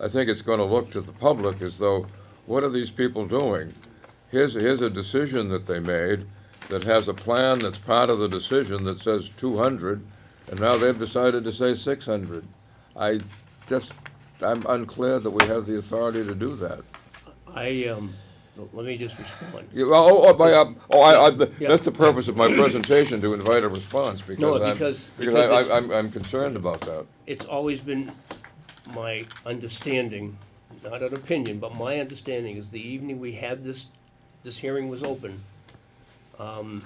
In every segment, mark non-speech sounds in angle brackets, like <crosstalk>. I think it's going to look to the public as though, what are these people doing? Here's, here's a decision that they made that has a plan that's part of the decision that says 200, and now they've decided to say 600. I just, I'm unclear that we have the authority to do that. I, um, let me just respond. You- Oh, oh, my, um, oh, I, I, Yeah. that's the purpose of my presentation, to invite a response, because I'm, because- because because I, it's- I'm, I'm concerned about that. It's always been my understanding, not an opinion, but my understanding is the evening we had this, this hearing was open, um,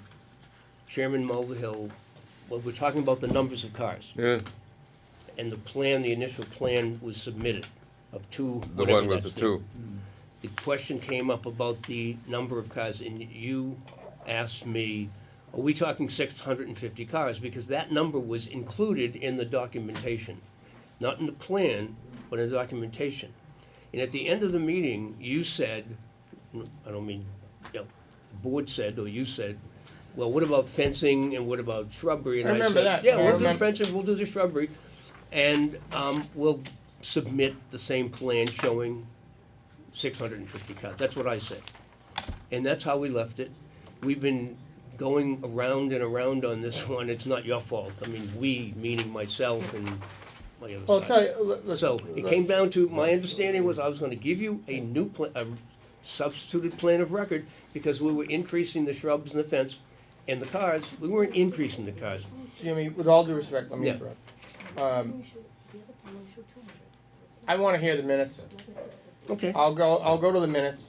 Chairman Mulvihill, well, we're talking about the numbers of cars, Yeah, and the plan, the initial plan was submitted of two, the whatever one with the that's two. the question came up about the number of cars, and you asked me, are we talking six hundred and fifty cars? Because that number was included in the documentation, not in the plan, but in the documentation. And at the end of the meeting, you said, I don't mean, you know, the board said, or you said, well, what about fencing and what about shrubbery? And I remember said, that. Yeah, I we'll do remember- fencing, we'll do the shrubbery, and, um, we'll submit the same plan showing six hundred and fifty cars, that's what I said. And that's how we left it. We've been going around and around on this <laughs> one, it's not your fault, I mean, we, meaning myself and my Well, other I'll tell side. you, li- listen. So, it came down to, my understanding was I was gonna give you a new pla- a substituted plan of record, because we were increasing the shrubs and the fence and the cars, we weren't increasing the cars. Jimmy, with all due respect, let me Yeah. interrupt. We should- the other plan, we should 200, so it's Um, I wanna hear the minutes. another 650. Okay. I'll go, I'll go to the minutes.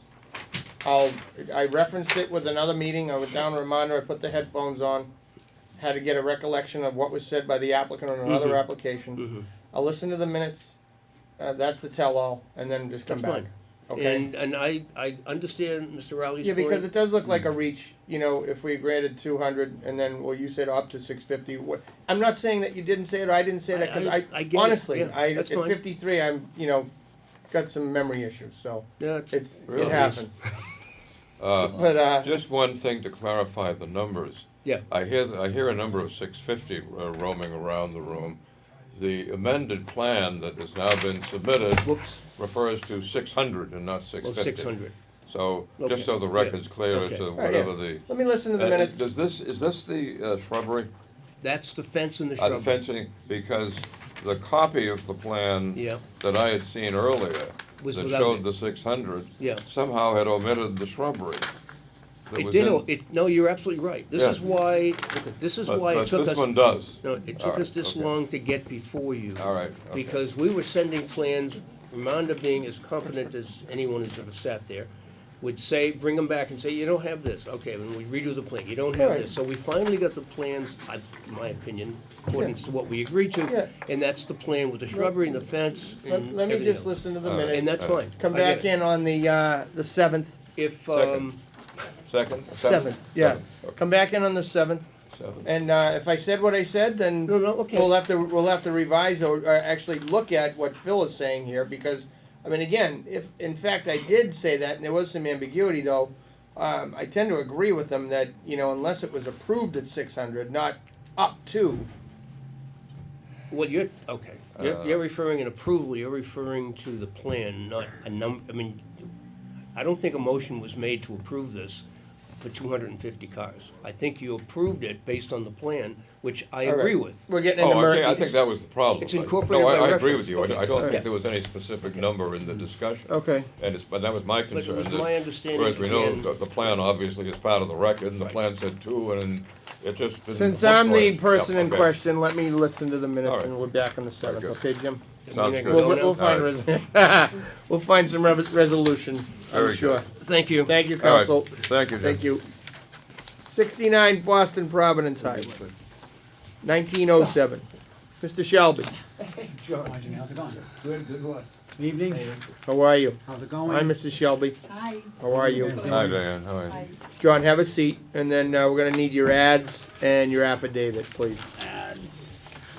I'll, I referenced it with another meeting, I went down to reminder, I put the headphones on, had to get a recollection of what was said by the applicant on Mm-hmm. another application. I'll listen to the minutes, uh, that's the tell-all, and then just come That's back. fine. Okay? And, and I, I understand Mr. Rowley's Yeah, point. because it does look like a Hmm. reach, you know, if we granted two hundred and then, well, you said up to six fifty, what, I'm not saying that you didn't say it, or I didn't say that, cause I- I- I I, get it. honestly, Yeah, I, at that's fine. fifty-three, I'm, you know, got some memory issues, so, Yeah, it's- it's, it Really? <laughs> happens. Uh, But, uh, just one thing to clarify the numbers. yeah, I hear, I hear a number of six fifty uh, roaming around the room. The amended plan that has now been submitted whoops, refers to six hundred and not six well, fifty. six hundred. So, Okay. just so the Yeah. record's clear as Okay. to yeah. whatever the. let me listen to the Uh, minutes, Does this, is this the uh, shrubbery? That's the fence and the Uh, the shrubbery. fencing, because the copy of the plan Yeah. that I had seen earlier, Was that without showed it. the six hundred, Yeah. somehow had omitted the shrubbery. that It was did, in- o- it, no, you're absolutely right. This Yeah. is why, look at- this is But- why but it took This us, one no, does. it All took right, us this okay. long to get before you. All right, okay. Because we were sending plans, Ramonda being as competent as anyone who's ever sat there, would say, bring them back and say, you don't have this. Okay, then we redo the plan, you don't have Right. this. So we finally got the plans, I, in my opinion, according to what we agreed Yeah. to. And that's the plan with the shrubbery and the fence and let, let me everything just else. listen to the All right. And minutes, that's fine. come I get back it. in on the, uh, the seventh, If, Second. um, Second? seventh, yeah, Seventh, okay, come back in on the seventh, seventh. and, uh, if I said what I said, then no, no, okay. We'll have to, we'll have to revise or, or actually look at what Phil is saying here, because, I mean, again, if, in fact, I did say that, and there was some ambiguity, though, um, I tend to agree with him that, you know, unless it was approved at six hundred, not up to, Well, you're, okay, you're, Uh, you're referring an approval, you're referring to the plan, not a num, I mean, I don't think a motion was made to approve this for two hundred and fifty cars. I think you approved it based on the plan, which I All right. agree with. we're getting into Oh, I think, I murky. think that was the problem. It's I- incorporated by No, I- I agree reference. with you, I I don't Yeah. think there was any specific number in the discussion. Okay, And it's, but that was my Hmm. But it concern. was that- my understanding, Whereas we know again- that the plan obviously is part of the record, and the plan said two, and it just didn't. since look I'm the right. person Yeah, in okay. question, let me listen to the All minutes, right. and we're back on the seventh, good. okay, Jim? I mean, Sounds I good. go We'll, now. we'll find, res- <laughs> we'll find some re- resolution, Very I'm good. sure. Thank you. Thank you, All right. council. Thank you, Jim. Thank you. Sixty-nine Boston Providence Highway, nineteen oh seven. Mr. Shelby, John, how's it going? Good, good what? Evening, how are you? how's Hi, it going? Mrs. Shelby, Hi. how are you? Hi, Diane, how are you? John, have a seat, and then uh, we're gonna need your ads and your affidavit, please.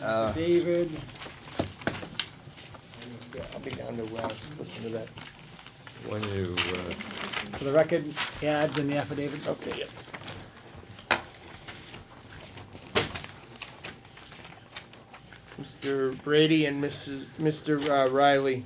Uh, David, I'll be down to, uh, listen to that. When you, uh, for the record, ads and the affidavit. Okay. Mr. Brady and Mrs., Mr. uh, Riley,